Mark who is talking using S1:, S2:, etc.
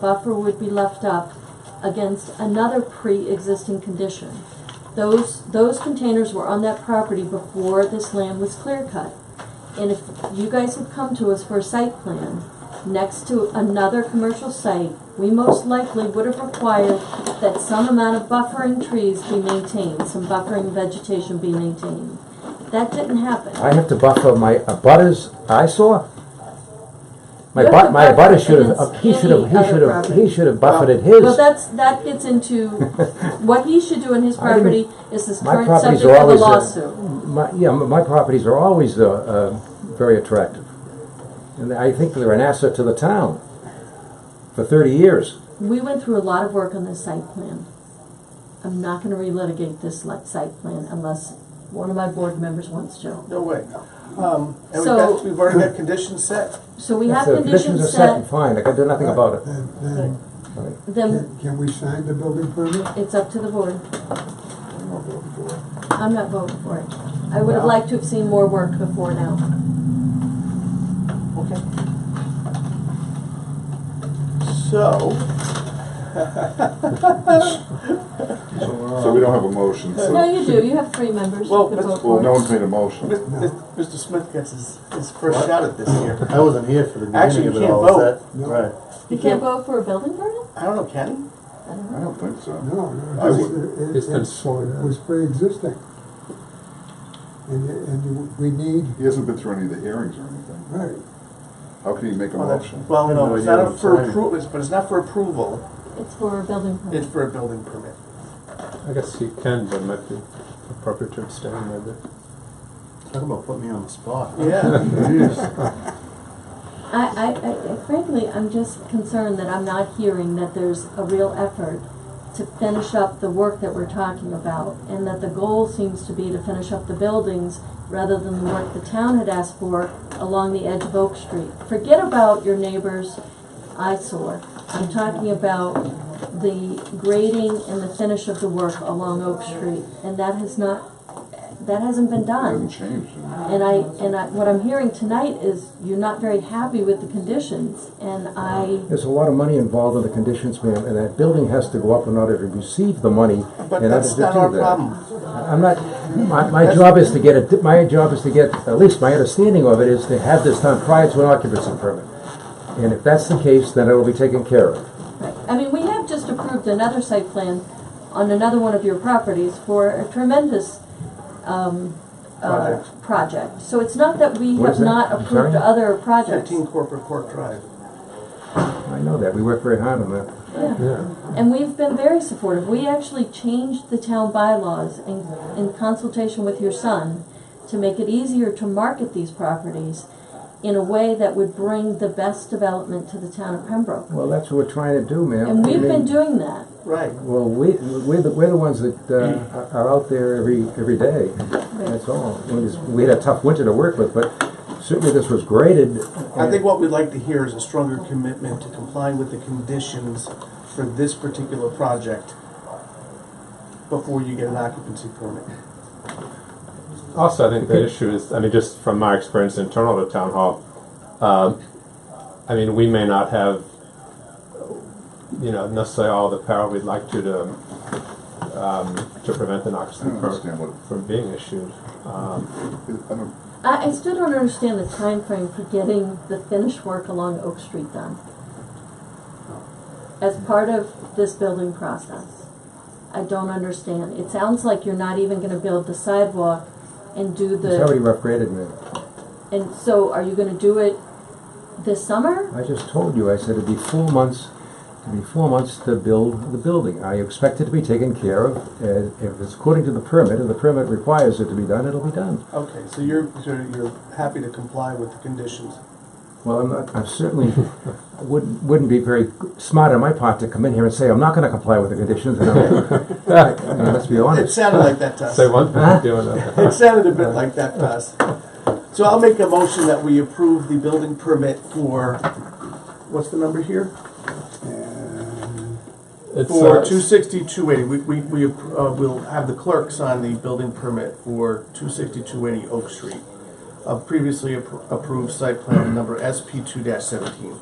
S1: buffer would be left up against another pre-existing condition. Those, those containers were on that property before this land was clear cut. And if you guys have come to us for a site plan next to another commercial site, we most likely would have required that some amount of buffering trees be maintained, some buffering vegetation be maintained. That didn't happen.
S2: I have to buffer my abutters eyesore? My
S1: You have
S2: bu-
S1: to
S2: my
S1: buffer
S2: abutter should have,
S1: against
S2: he should have,
S1: any
S2: he
S1: other
S2: should have,
S1: property.
S2: he should have buffered his.
S1: Well, that's, that gets into, what he should do in his
S2: I didn't-
S1: property is this
S2: my
S1: current
S2: properties
S1: subject
S2: are
S1: of a
S2: always, uh,
S1: lawsuit.
S2: My, yeah, m- my properties are always, uh, uh, very attractive. And I think they're an asset to the town for thirty years.
S1: We went through a lot of work on this site plan. I'm not gonna relitigate this li- site plan unless one of my board members wants to.
S3: No way. Um, and we've
S1: So-
S3: got, we've already got conditions set.
S1: So we
S2: If
S1: have
S2: the are
S1: conditions
S2: set and
S1: set,
S2: fine, I can do nothing about it.
S4: Then, then,
S1: then
S4: can, can we sign the building permit?
S1: it's up to the board. I'm not voting for it. I would have
S2: No.
S1: liked to have seen more work before now.
S3: Okay. So.
S5: So we don't have a motion, so.
S1: No, you do, you have three members who
S3: Well,
S1: could
S3: that's-
S1: vote
S5: Well,
S1: for
S5: no
S1: it.
S5: one's made a motion.
S3: Mis- mis- Mr. Smith gets his, his first shot at this here.
S6: I wasn't here for the
S3: Actually,
S6: beginning of
S3: you
S6: it
S3: can't
S6: all, is
S3: vote.
S6: that?
S4: No.
S6: Right.
S1: You can't vote for a building permit?
S3: I don't know, Ken?
S1: I don't know.
S5: I don't think so.
S4: No, no,
S5: I
S4: it's,
S5: would-
S4: it-
S7: It's been
S4: it's, it
S7: sworn in.
S4: was pre-existing. And, you- and you- we need,
S5: He hasn't been through any of the hearings or anything.
S4: right,
S5: How can he make a
S3: Well, that-
S5: motion?
S3: Well,
S6: I have
S3: no,
S6: no
S3: it's
S6: idea
S3: not
S6: what I'm
S3: for
S6: signing.
S3: approval, it's- but it's not for approval,
S1: It's for a building permit.
S3: it's for a building permit.
S7: I guess you can, but it might be appropriate to abstain maybe.
S6: Talk about putting me on the spot.
S3: Yeah.
S1: I, I, I, frankly, I'm just concerned that I'm not hearing that there's a real effort to finish up the work that we're talking about, and that the goal seems to be to finish up the buildings rather than the work the town had asked for along the edge of Oak Street. Forget about your neighbor's eyesore. I'm talking about the grading and the finish of the work along Oak Street, and that has not, that hasn't been
S5: It
S1: done.
S5: hasn't changed.
S1: And I, and I, what I'm hearing tonight is you're not very happy with the conditions, and I,
S2: There's a lot of money involved in the conditions, ma'am, and that building has to go up in order to receive the money.
S3: But
S2: in order
S3: that's
S2: to
S3: not
S2: do
S3: our
S2: that.
S3: problem.
S2: I'm not, my, my job is to get it, my job is to get, at least my understanding of it is to have this done prior to an occupancy permit. And if that's the case, then it'll be taken care of.
S1: I mean, we have just approved another site plan on another one of your properties for a tremendous, um, uh, project. So it's not that we
S2: What
S1: have
S2: is that?
S1: not
S2: I'm
S1: approved
S2: sorry?
S1: other projects.
S3: Fifteen Corporate Court Drive.
S2: I know that, we work very hard on that.
S1: Yeah.
S7: Yeah.
S1: And we've been very supportive. We actually changed the town bylaws in, in consultation with your son to make it easier to market these properties in a way that would bring the best development to the town of Pembroke.
S2: Well, that's what we're trying to do, ma'am.
S1: And we've
S2: I mean,
S1: been doing that.
S3: Right.
S2: Well, we, we're the, we're the ones that uh, are- are out there every, every day, that's all. We just- We had a tough winter to work with, but certainly this was graded.
S3: I think what we'd like to hear is a stronger commitment to complying with the conditions for this particular project before you get an occupancy permit.
S7: Also, I think the issue is, I mean, just from my experience internal to town hall, um, I mean, we may not have, you know, necessarily all the power we'd like to to, um, to prevent an
S5: I don't
S7: occupancy
S5: understand
S7: permit
S5: what,
S7: from being issued. Um,
S5: I don't,
S1: I, I still don't understand the time frame for getting the finished work along Oak Street done as part of this building process. I don't understand. It sounds like you're not even gonna build the sidewalk and do the.
S2: It's already rough graded, ma'am.
S1: And so, are you gonna do it this summer?
S2: I just told you, I said it'd be four months, it'd be four months to build the building. I expect it to be taken care of, and if it's according to the permit, and the permit requires it to be done, it'll be done.
S3: Okay, so you're, so you're happy to comply with the conditions.
S2: Well, I'm not, I certainly wouldn't, wouldn't be very smart on my part to come in here and say, I'm not gonna comply with the conditions, and I'm, I mean, let's be
S3: It
S2: honest.
S3: sounded like that to us.
S7: say one thing, do another.
S3: It sounded a bit like that to us. So I'll make a motion that we approve the building permit for, what's the number here?
S4: and
S7: It's,
S3: For
S7: uh,
S3: two sixty, two eighty. We, we, we, uh, we'll have the clerk sign the building permit for two sixty, two eighty Oak Street. A previously appro- approved site plan number SP two seventeen.